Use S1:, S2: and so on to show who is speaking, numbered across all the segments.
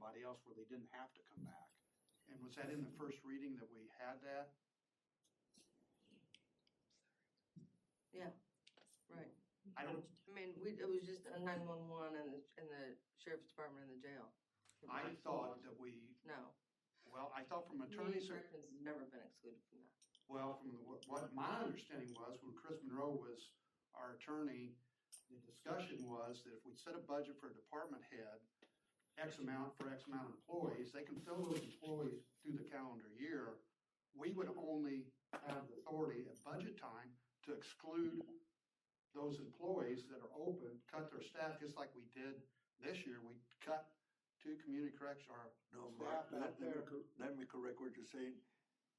S1: else where they didn't have to come back. And was that in the first reading that we had that? I don't,
S2: I mean, we, it was just a nine-one-one and the, and the sheriff's department and the jail.
S1: I thought that we,
S2: No.
S1: well, I thought from attorney,
S2: Attorney's
S1: ser-
S2: has never been excluded from that.
S1: well, from the- what my understanding was, when Chris Monroe was our attorney, the discussion was that if we set a budget for a department head, X amount for X amount of employees, they can fill those employees through the calendar year. We would only have the authority at budget time to exclude those employees that are open, cut their staff, just like we did this year. We cut two community correction, or
S3: No,
S1: Staff out
S3: Mark, let let
S1: there.
S3: me, cor- let me correct what you're saying.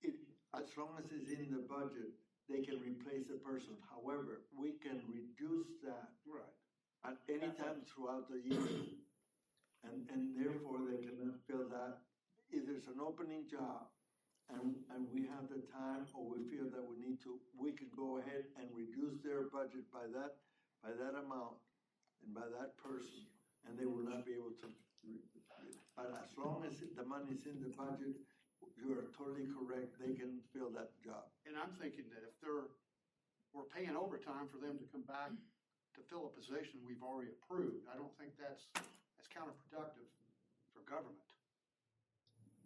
S3: It, as long as it's in the budget, they can replace the person. However, we can reduce that
S1: Right.
S3: at any time throughout the year. And, and therefore, they cannot fill that. If there's an opening job and, and we have the time or we feel that we need to, we can go ahead and reduce their budget by that, by that amount and by that person, and they will not be able to. re- re- But as long as the money's in the budget, you are totally correct, they can fill that job.
S1: And I'm thinking that if they're, we're paying overtime for them to come back to fill a position we've already approved, I don't think that's, that's counterproductive for government.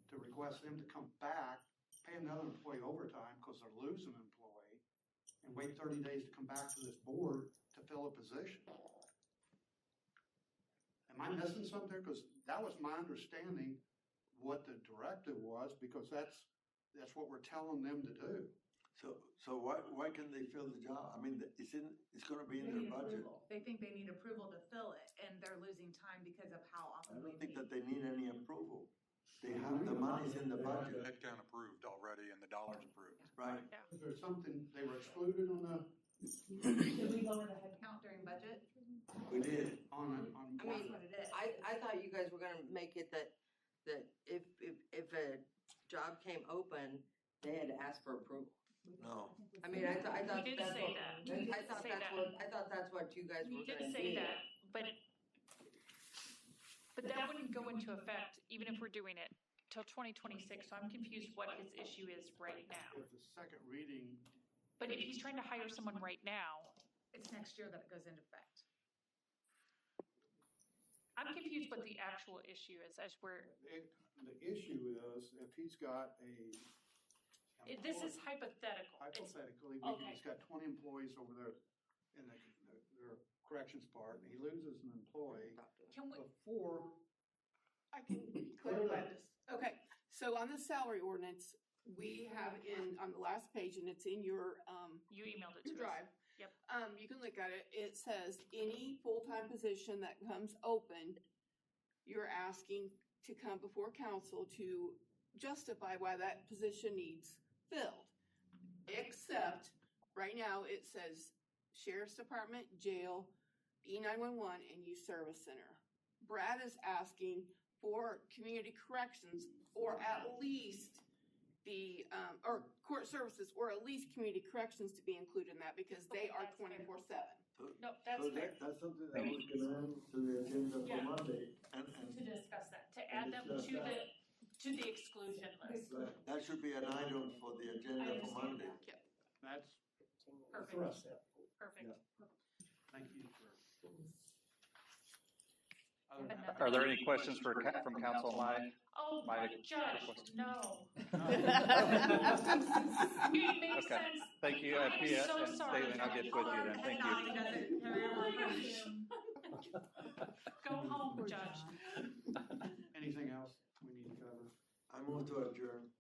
S1: To request them to come back, pay another employee overtime because they're losing an employee, and wait thirty days to come back to this board to fill a position. Am I missing something there? Because that was my understanding what the directive was, because that's, that's what we're telling them to do.
S3: So, so why, why can they fill the job? I mean, it's in, it's gonna be in
S4: They
S3: their
S4: need
S3: budget.
S4: approval. They think they need approval to fill it, and they're losing time because of how
S3: I
S4: often we
S3: don't think that
S4: meet.
S3: they need any approval. They have, the money's in the budget,
S5: Headcount approved already and the dollars approved.
S3: right?
S1: Is there something, they were excluded on the,
S4: Did we go into headcount during budget?
S3: We did.
S1: on, on
S2: I
S1: what?
S4: That's
S2: mean,
S4: what it is.
S2: I, I thought you guys were gonna make it that, that if, if, if a job came open, they had to ask for approval.
S3: No.
S2: I mean, I thought, I thought
S6: We did
S2: that's
S6: say
S2: what-
S6: that. We
S2: I
S6: did
S2: thought
S6: say
S2: that's
S6: that.
S2: what, I thought that's what you guys were
S6: We
S2: gonna
S6: did
S2: do.
S6: say that, but it, but that wouldn't go into effect even if we're doing it till twenty twenty-six, so I'm confused what his issue is right now.
S1: If the second reading,
S6: But if he's trying to hire someone right now,
S4: It's next year that it goes into effect.
S6: I'm confused what the actual issue is as we're,
S1: it, the issue is if he's got a.
S6: it- this is hypothetical. It's-
S1: Hypothetically, we-
S6: Okay.
S1: he's got twenty employees over there in the, their corrections part, and he loses an employee
S2: Talk to them.
S6: Can we,
S1: before.
S7: I can clarify this. Okay, so on the salary ordinance, we have in, on the last page, and it's in your, um,
S6: you emailed it
S7: your
S6: to us.
S7: drive.
S6: Yep.
S7: Um, you can look at it. It says any full-time position that comes open, you're asking to come before council to justify why that position needs filled. Except, right now, it says sheriff's department, jail, E nine one one, and youth service center. Brad is asking for community corrections, or at least the, um, or court services, or at least community corrections to be included in that, because they
S6: Okay,
S7: are
S6: that's fair.
S7: twenty-four seven.
S6: No, that's
S3: So that-
S6: fair,
S3: That's something that we can add to the agenda for
S6: Yeah.
S3: Monday, and,
S6: to
S3: and
S6: discuss that, to add them to the, to the exclusion list.
S3: right, that should be an item for the
S6: I
S3: agenda for
S6: understand
S3: Monday.
S6: that.
S1: That's,
S6: Perfect, perfect.
S1: thank you for. Other than that-
S8: Are there any questions for, ca- from council on my?
S6: Oh,
S8: My-
S6: my judge, no. It makes
S8: Okay.
S6: sense.
S8: Thank you,
S6: I am
S8: Pia
S6: so
S8: and
S6: sorry,
S8: Staley, I'll get
S6: Judge.
S8: with you then, thank you.
S6: Go home, Judge.
S1: Anything else we need to cover?
S3: I move to adjourn.